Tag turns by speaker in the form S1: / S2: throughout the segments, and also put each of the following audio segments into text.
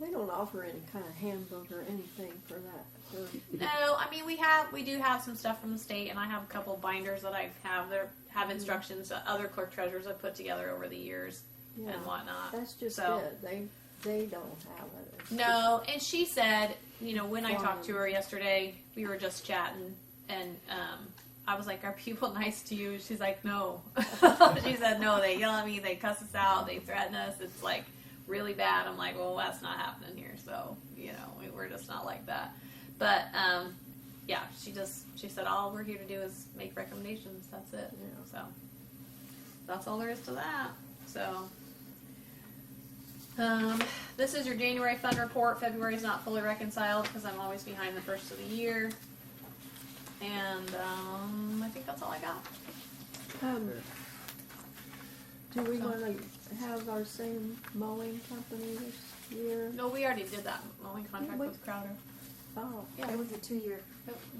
S1: They don't offer any kind of handbook or anything for that. for-
S2: No, I mean we have we do have some stuff from the state, and I have a couple binders that I have there
S1: Mm-hmm.
S2: have instructions that other clerk treasurers have put together over the years
S1: yeah.
S2: and whatnot.
S1: That's just
S2: So-
S1: it. They they don't have it. It's
S2: No, and she said, you know, when I talked to her yesterday, we were just chatting, and um, I was like, "Are people nice to you?" She's like, "No." she said, "No, they yell at me, they cuss us out, they threaten us. It's like really bad." I'm like, "Well, that's not happening here, so you know, we, we're just not like that." But um, yeah, she just she said, "All we're here to do is make recommendations. That's it."
S1: Yeah.
S2: So that's all there is to that. So. Um, this is your January fund report. February is not fully reconciled because I'm always behind the first of the year. And um, I think that's all I got.
S1: just- Um, do we want to have our same mowing company this year?
S2: No, we already did that mowing contract
S1: Yeah, we-
S2: with Crowder.
S1: Oh,
S2: Yeah,
S3: That was a two-year.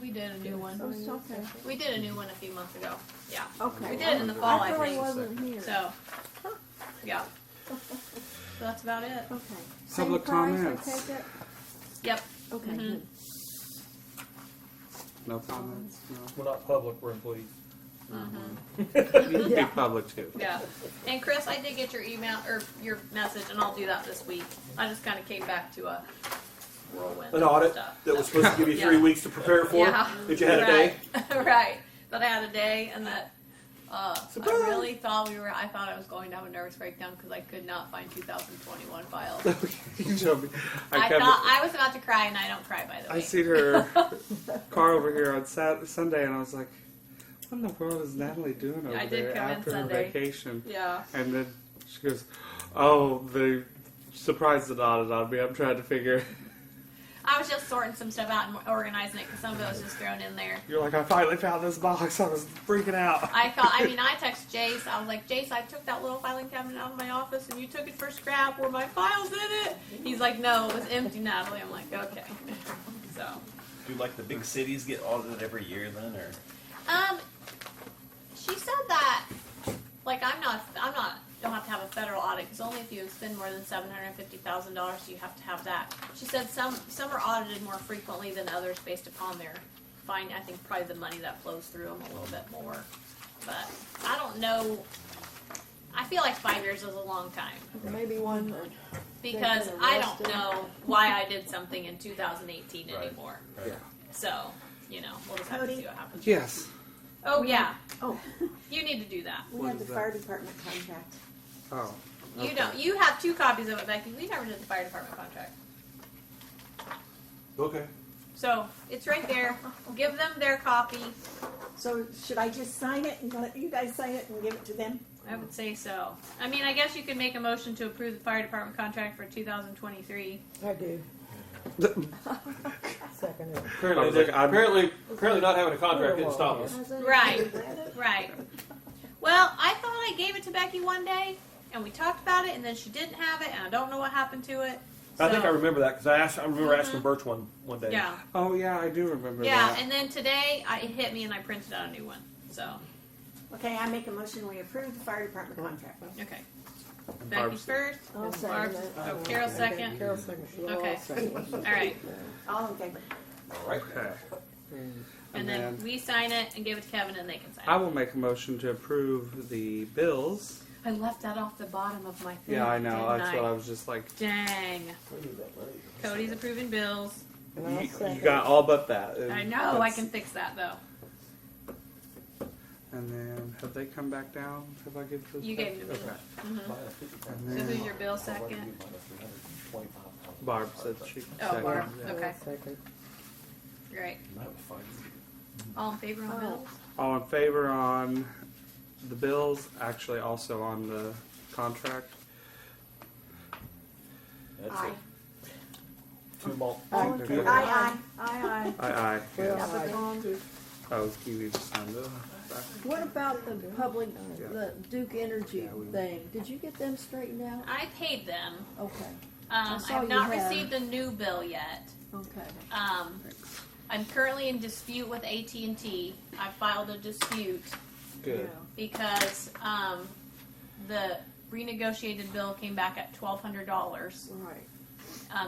S2: we did a new one.
S1: oh, it's okay.
S2: We did a new one a few months ago. Yeah.
S1: Okay.
S2: We did it in the fall,
S1: I
S2: I
S1: thought I
S2: think.
S1: wasn't here.
S2: So, yeah. So that's about it.
S1: Okay. Same
S4: Public
S1: price, I
S4: comments.
S1: take it?
S2: Yep.
S1: Okay.
S2: Mhm.
S1: good.
S4: No comments? No.
S5: We're not public, we're employees.
S4: You can
S1: Yeah.
S4: be public too.
S2: Yeah. And Chris, I did get your email or your message, and I'll do that this week. I just kind of came back to a whirlwind.
S6: An
S2: of
S6: audit
S2: stuff,
S6: that was supposed to give you three
S2: Yeah.
S6: weeks to prepare for.
S2: Yeah.
S6: That you had a day.
S2: right. right. That I had a day, and that uh, I
S6: Surprise!
S2: really thought we were. I thought I was going to have a nervous breakdown because I could not find 2021 files. I,
S4: You know me. I come-
S2: thought I was about to cry, and I don't cry by the way.
S4: I see her car over here on Sat- Sunday, and I was like, "What in the world is Natalie doing over
S2: I did
S4: there
S2: come in
S4: after her
S2: Sunday.
S4: vacation?"
S2: Yeah.
S4: And then she goes, "Oh, the surprise that audit on me. I'm trying to figure."
S2: I was just sorting some stuff out and organizing it because some of it was just thrown in there.
S4: You're like, "I finally found this box. I was freaking out."
S2: I thought. I mean, I texted Jace. I was like, Jace, I took that little filing cabinet out of my office, and you took it for scrap. Were my files in it? He's like, No, it was empty, Natalie. I'm like, Okay. So.
S7: Do like the big cities get audited every year then, or
S2: Um, she said that like I'm not I'm not don't have to have a federal audit because only if you spend more than seven hundred fifty thousand dollars you have to have that. She said some some are audited more frequently than others based upon their fine. I think probably the money that flows through them a little bit more, but I don't know. I feel like five years is a long time
S1: Maybe one that
S2: because
S1: They've been
S2: I don't
S1: arrested.
S2: know why I did something in 2018
S7: Right.
S2: anymore.
S7: Right. Yeah.
S2: So you know we'll just have to
S3: Cody?
S2: see what happens.
S4: Yes.
S2: Oh yeah.
S3: Oh.
S2: You need to do that.
S3: We
S4: What
S3: had
S4: is
S3: the
S4: that?
S3: fire department contract.
S4: Oh.
S2: You
S4: Okay.
S2: don't. You have two copies of it, Becky. We never did the fire department contract,
S6: Okay.
S2: so it's right there. Give them their copy.
S3: So should I just sign it and let you guys sign it and give it to them?
S2: I would say so. I mean, I guess you could make a motion to approve the fire department contract for 2023.
S8: I do. Second it.
S4: I
S6: Apparently,
S4: was like,
S6: they-
S4: I'm-
S6: apparently, apparently, not having a contract didn't stop us.
S1: has it.
S2: Right. Right. Well, I thought I gave it to Becky one day, and we talked about it, and then she didn't have it, and I don't know what happened to it.
S6: I think
S2: So-
S6: I remember that because I asked. I remember asking Birch one one day.
S2: Mm-hmm. Yeah.
S4: Oh yeah, I do remember
S2: Yeah.
S4: that.
S2: And then today, I, it hit me, and I printed out a new one. So
S3: Okay, I make a motion, we approve the fire department contract.
S2: okay.
S4: And
S2: Becky
S4: Barb's-
S2: first.
S1: I'll
S2: Barb's,
S1: second it.
S2: oh, Carol second.
S8: Carol second. We'll all
S2: Okay.
S8: second it.
S2: All right.
S3: All in favor?
S6: All right.
S4: Okay.
S2: And then we sign it and give it to Kevin and they can sign
S4: I
S2: it.
S4: will make a motion to approve the bills.
S2: I left that off the bottom of my thing.
S4: Yeah, I know.
S2: didn't
S4: That's
S2: I?
S4: what I was just like.
S2: Dang. Cody's approving bills.
S8: And
S4: You,
S8: I'll
S4: you
S8: second.
S4: got all but that. and
S2: I know. I
S4: that's-
S2: can fix that though.
S4: And then have they come back down? Have I given those?
S2: You
S4: back?
S2: gave them to
S4: Okay.
S2: me.
S4: And
S2: So
S4: then
S2: who's your bill second?
S4: Barb said she. could
S2: Oh,
S4: second.
S2: Barb.
S4: Yeah.
S8: I'll
S2: Okay.
S8: second.
S2: Great. All in favor on
S1: Oh.
S2: bills?
S4: All in favor on the bills? Actually, also on the contract.
S7: that's it.
S6: Two more.
S1: All in
S4: Aye.
S1: favor?
S3: Aye,
S1: Aye, aye.
S4: Aye, aye.
S8: Well,
S4: yes.
S1: Up and on.
S4: Oh, you need to sign the.
S1: What about the public,
S4: Yeah.
S1: the Duke Energy
S4: Yeah, we-
S1: thing? Did you get them straightened out?
S2: I paid them.
S1: Okay,
S2: Um, I
S1: saw
S2: have
S1: you
S2: not
S1: had-
S2: received a new bill yet.
S1: okay.
S2: Um, I'm currently in dispute with AT&T. I filed a dispute.
S4: Good.
S2: because um, the renegotiated bill came back at twelve hundred dollars,
S1: Yeah, Right,